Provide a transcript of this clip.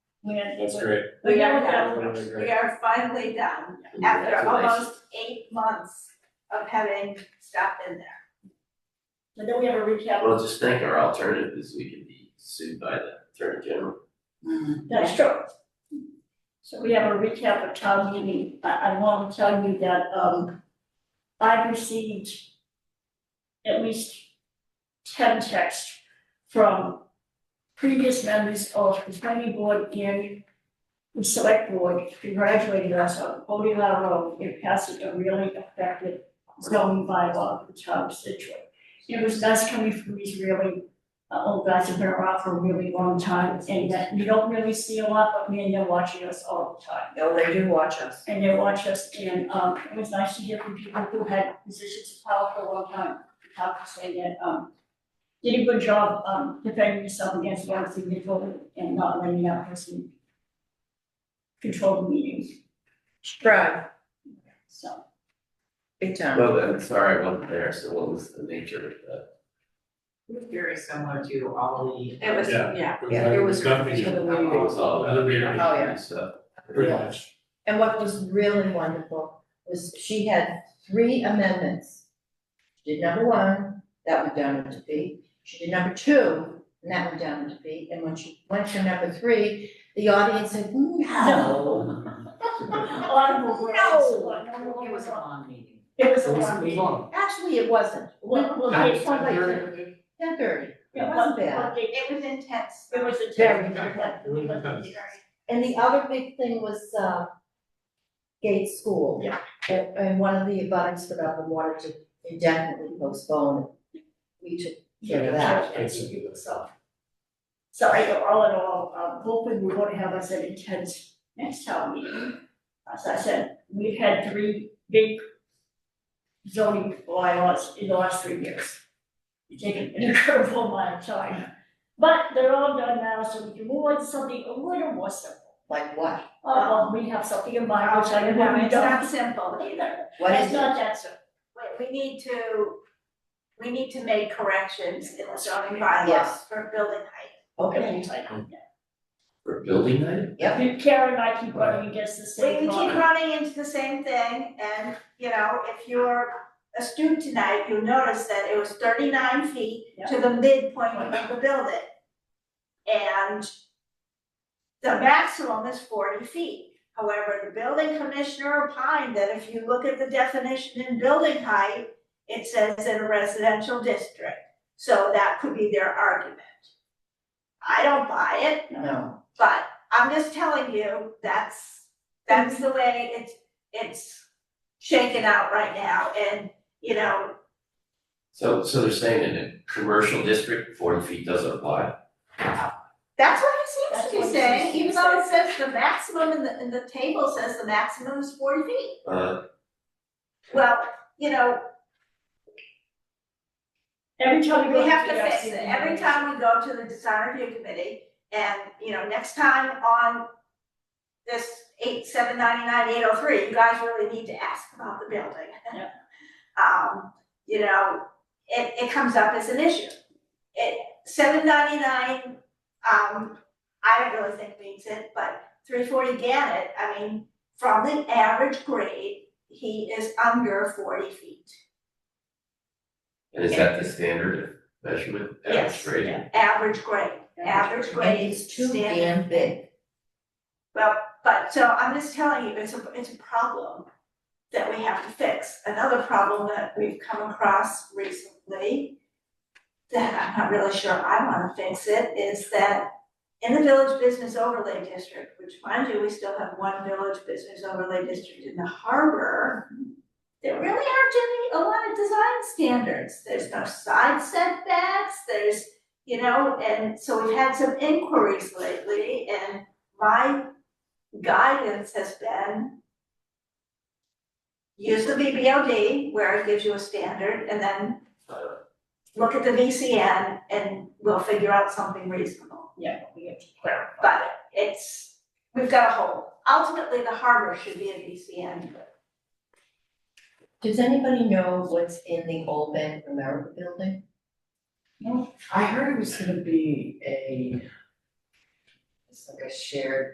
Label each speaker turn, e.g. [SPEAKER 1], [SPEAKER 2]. [SPEAKER 1] We're,
[SPEAKER 2] That's great.
[SPEAKER 1] we
[SPEAKER 3] We
[SPEAKER 1] are
[SPEAKER 3] are
[SPEAKER 1] done,
[SPEAKER 2] Really great.
[SPEAKER 1] we are finally done
[SPEAKER 4] Mm,
[SPEAKER 1] after almost eight months of having stuff in there.
[SPEAKER 3] But then we have a recap.
[SPEAKER 4] Well, just think our alternative is we could be sued by the attorney general.
[SPEAKER 3] That's true. So we have a recap of town meeting. I, I want to tell you that, um, I received at least ten texts from previous members of the planning board and the select board congratulating us on voting our road and passing a really effective zoning bylaw for the town of Situate. It was us coming from these really uh, old guys have been around for a really long time, and that you don't really see a lot, but man, they're watching us all the time.
[SPEAKER 1] No, they do watch us.
[SPEAKER 3] And they watch us, and, um, it was nice to hear from people who had positions of power for a long time, how to say that, um, did a good job, um, defending yourself against one significant and not letting that person control the meeting,
[SPEAKER 1] Right,
[SPEAKER 3] so.
[SPEAKER 1] big time.
[SPEAKER 4] Well, I'm sorry, I wasn't there, so what was the nature of the?
[SPEAKER 5] Very similar to all the.
[SPEAKER 1] It was,
[SPEAKER 2] Yeah.
[SPEAKER 1] yeah,
[SPEAKER 2] Yeah,
[SPEAKER 5] It was.
[SPEAKER 2] Nothing new.
[SPEAKER 4] I think it was all about
[SPEAKER 2] Another meeting.
[SPEAKER 4] the
[SPEAKER 5] Oh, yeah.
[SPEAKER 4] stuff.
[SPEAKER 2] Pretty much.
[SPEAKER 5] And what was really wonderful was she had three amendments. She did number one, that went down into B. She did number two, and that went down into B. And when she went to number three, the audience said, no.
[SPEAKER 3] Audible, words,
[SPEAKER 5] No.
[SPEAKER 3] no,
[SPEAKER 6] It was a long meeting.
[SPEAKER 3] It was
[SPEAKER 2] It
[SPEAKER 3] a
[SPEAKER 2] was,
[SPEAKER 3] long
[SPEAKER 2] it was
[SPEAKER 3] meeting.
[SPEAKER 2] long.
[SPEAKER 5] Actually, it wasn't.
[SPEAKER 3] Well, well, they-
[SPEAKER 2] That's very-
[SPEAKER 5] Ten thirty.
[SPEAKER 3] yeah,
[SPEAKER 5] It
[SPEAKER 3] but-
[SPEAKER 5] wasn't bad.
[SPEAKER 3] but they-
[SPEAKER 1] It was intense.
[SPEAKER 3] It was a
[SPEAKER 5] Very
[SPEAKER 3] terrible,
[SPEAKER 2] It was intense.
[SPEAKER 5] And the other big thing was, uh, Gates School.
[SPEAKER 3] Yeah.
[SPEAKER 5] And, and one of the abutters put up a water to indefinitely postpone. it. We took care of that.
[SPEAKER 3] So. So I go all in all, um, hoping we won't have us an intense next town meeting. As I said, we've had three big zoning bylaws in the last three years. We've taken an incredible amount of time, but they're all done now, so we can move on to something a little more simple.
[SPEAKER 5] Like what?
[SPEAKER 3] Uh, we have something in mind, which I know we
[SPEAKER 1] It's not
[SPEAKER 3] don't
[SPEAKER 1] simple
[SPEAKER 3] either.
[SPEAKER 5] What
[SPEAKER 3] It's
[SPEAKER 5] is it?
[SPEAKER 3] not that simple.
[SPEAKER 1] We, we need to, we need to make corrections in the zoning bylaws
[SPEAKER 5] Yes.
[SPEAKER 1] for building height.
[SPEAKER 5] Okay.
[SPEAKER 4] For building height?
[SPEAKER 5] Yep.
[SPEAKER 3] Karen and I keep running against the
[SPEAKER 1] We,
[SPEAKER 3] same
[SPEAKER 1] we keep
[SPEAKER 3] law.
[SPEAKER 1] running into the same thing and, you know, if you're a student tonight, you notice that it was thirty-nine feet to the midpoint of the building. And the maximum is forty feet. However, the building commissioner opined that if you look at the definition in building height, it says in a residential district. So that could be their argument. I don't buy it,
[SPEAKER 5] No.
[SPEAKER 1] but I'm just telling you, that's, that's the way it's, it's shaken out right now, and, you know,
[SPEAKER 4] So, so they're saying in a commercial district, forty feet doesn't apply?
[SPEAKER 1] that's what it seems to be
[SPEAKER 3] That's what it seems
[SPEAKER 1] saying,
[SPEAKER 3] to be
[SPEAKER 1] even though it says the maximum in the, in the table says the maximum is forty feet.
[SPEAKER 4] Uh,
[SPEAKER 1] Well, you know,
[SPEAKER 3] Every time we go.
[SPEAKER 1] we have to
[SPEAKER 3] the
[SPEAKER 1] fix it,
[SPEAKER 3] DRC,
[SPEAKER 1] every time we go to the design review committee, and, you know, next time on this eight, seven ninety-nine, eight oh three, you guys really need to ask about the building.
[SPEAKER 3] Yeah.
[SPEAKER 1] Um, you know, it, it comes up as an issue. It, seven ninety-nine, um, I don't really think means it, but three forty Gannett, I mean, from the average grade, he is under forty feet.
[SPEAKER 4] and is that the standard of measurement, average
[SPEAKER 1] Yes,
[SPEAKER 4] grade?
[SPEAKER 3] yeah.
[SPEAKER 1] average grade, average
[SPEAKER 5] And
[SPEAKER 1] grade
[SPEAKER 5] it's too
[SPEAKER 1] standard.
[SPEAKER 5] damn big.
[SPEAKER 1] Well, but so I'm just telling you, it's a, it's a problem that we have to fix. Another problem that we've come across recently that I'm not really sure I wanna fix it, is that in the village business overlay district, which mind you, we still have one village business overlay district in the harbor, there really aren't any, a lot of design standards. There's no side setbacks, there's, you know, and so we've had some inquiries lately and my guidance has been use the VBOD where it gives you a standard and then
[SPEAKER 4] Uh,
[SPEAKER 1] look at the VCN and we'll figure out something reasonable.
[SPEAKER 3] Yeah, we have to clarify.
[SPEAKER 1] But it's, we've got a hole. Ultimately, the harbor should be a VCN.
[SPEAKER 5] Does anybody know what's in the old Bank of America building?
[SPEAKER 6] I heard it was gonna be a, it's like a shared